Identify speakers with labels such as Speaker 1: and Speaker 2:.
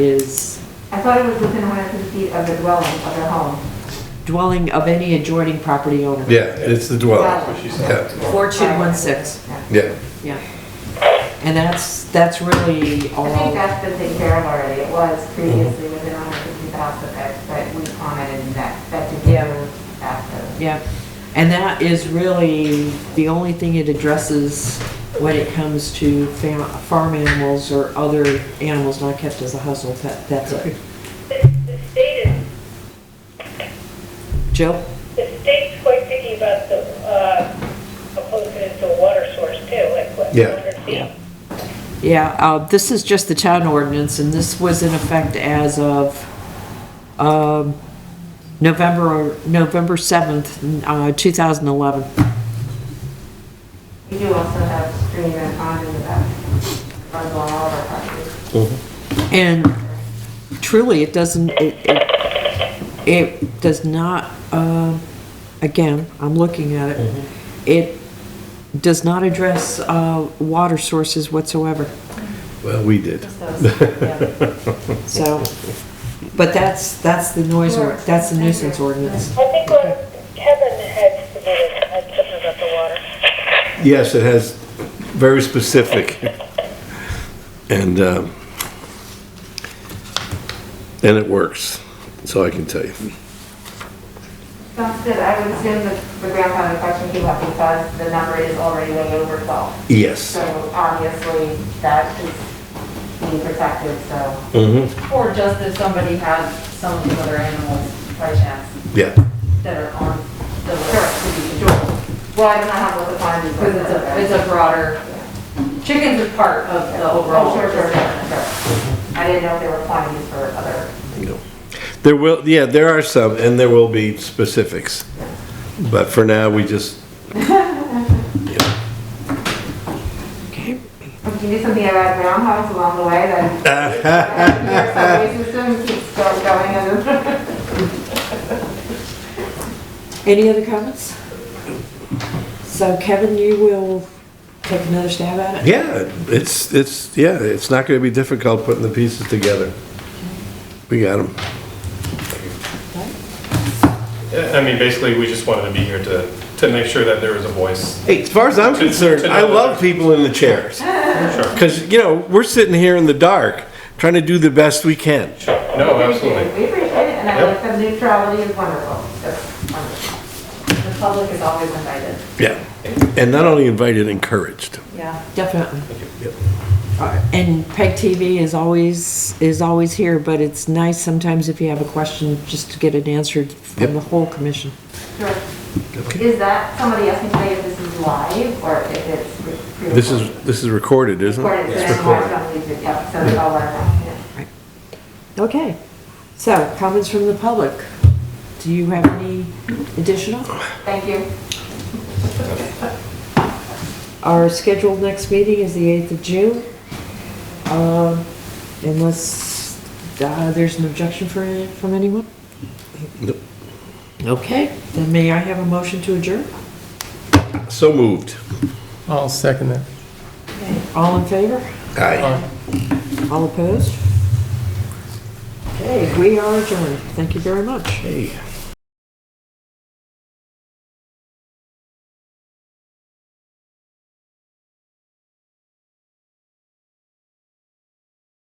Speaker 1: is
Speaker 2: I thought it was within 100 feet of the dwelling of the home.
Speaker 1: dwelling of any adjoining property owner.
Speaker 3: Yeah, it's the dwelling.
Speaker 2: Got it.
Speaker 3: Yeah,
Speaker 1: Four two one six,
Speaker 3: yeah.
Speaker 1: yeah. And that's, that's really
Speaker 2: I think
Speaker 1: all,
Speaker 2: that's been taken care of already. It was previously within 150,000, but that- but we commented that, that did
Speaker 1: Yeah.
Speaker 2: get moved after.
Speaker 1: yeah. And that is really the only thing it addresses when it comes to fam- farm animals or other animals not kept as a household pet, that's it.
Speaker 4: The the state is,
Speaker 1: Jill?
Speaker 4: the state's quite picky about the, uh, opposing it to a water source too, like what,
Speaker 3: Yeah.
Speaker 4: 100
Speaker 1: Yeah.
Speaker 4: feet?
Speaker 1: Yeah, uh, this is just the town ordinance, and this was in effect as of, um, November, November seventh, uh, two thousand eleven.
Speaker 2: We do also have stream and pond in the back, runs along all of our properties.
Speaker 1: And truly, it doesn't, it, it, it does not, uh, again, I'm looking at it. It does not address, uh, water sources whatsoever,
Speaker 3: Well, we did.
Speaker 1: so, but that's, that's the noise, or- that's the nuisance ordinance.
Speaker 4: I think what Kevin had submitted, had something about the water.
Speaker 3: Yes, it has, very specific. And, um, and it works, so I can tell you.
Speaker 2: Sounds good. I would assume that the grandfather question came up because the number is already way over 12.
Speaker 3: Yes.
Speaker 2: So obviously, that is being protected, so.
Speaker 3: Mm-hmm.
Speaker 2: Or just if somebody has some of these other animals by chance
Speaker 3: Yeah,
Speaker 2: that are on the list to be controlled. Well, I don't know how to define these.
Speaker 5: Because it's a, it's a broader, chickens are part of the
Speaker 2: Oh,
Speaker 5: overall.
Speaker 2: sure, sure, sure, sure. I didn't know if there were quantities for other.
Speaker 3: no. There will, yeah, there are some, and there will be specifics. But for now, we just,
Speaker 1: Okay.
Speaker 2: We can do something about roundhouse along the way then. Your subway system keeps go- going and.
Speaker 1: Any other comments? So Kevin, you will take another stab at it?
Speaker 3: yeah, it's, it's, yeah, it's not gonna be difficult putting the pieces together. We got them.
Speaker 6: Yeah, I mean, basically, we just wanted to be here to, to make sure that there was a voice.
Speaker 3: Hey, as far as I'm
Speaker 6: To-
Speaker 3: concerned,
Speaker 6: to know
Speaker 3: I
Speaker 6: that
Speaker 3: love people in the chairs.
Speaker 6: Sure.
Speaker 3: Because, you know, we're sitting here in the dark, trying to do the best we can.
Speaker 6: No, Oh, absolutely.
Speaker 2: We appreciate it, and I
Speaker 6: Yep.
Speaker 2: like the neutrality is wonderful. That's wonderful. The public is always invited.
Speaker 3: Yeah. And not only invited, encouraged.
Speaker 2: Yeah.
Speaker 1: Definitely. And PEG TV is always, is always here, but it's nice sometimes if you have a question, just to get it answered from
Speaker 3: Yep.
Speaker 1: the whole commission.
Speaker 2: Sure.
Speaker 3: Okay.
Speaker 2: Is that, somebody asked me today if this is live or if it's re- pre-recorded?
Speaker 3: This is, this is recorded, isn't
Speaker 2: Recorded,
Speaker 3: it?
Speaker 2: so then tomorrow's on YouTube, yep, so it's all live now, yeah.
Speaker 1: Okay, so comments from the public. Do you have any additional?
Speaker 2: Thank you.
Speaker 1: Our scheduled next meeting is the 8th of June. Um, Unless uh, there's an objection for- from anyone?
Speaker 3: Nope.
Speaker 1: Okay, then may I have a motion to adjourn?
Speaker 3: So moved.
Speaker 7: I'll second that.
Speaker 1: All in favor?
Speaker 3: Aye.
Speaker 1: All opposed? Okay, we are adjourned. Thank you very much.
Speaker 3: Hey.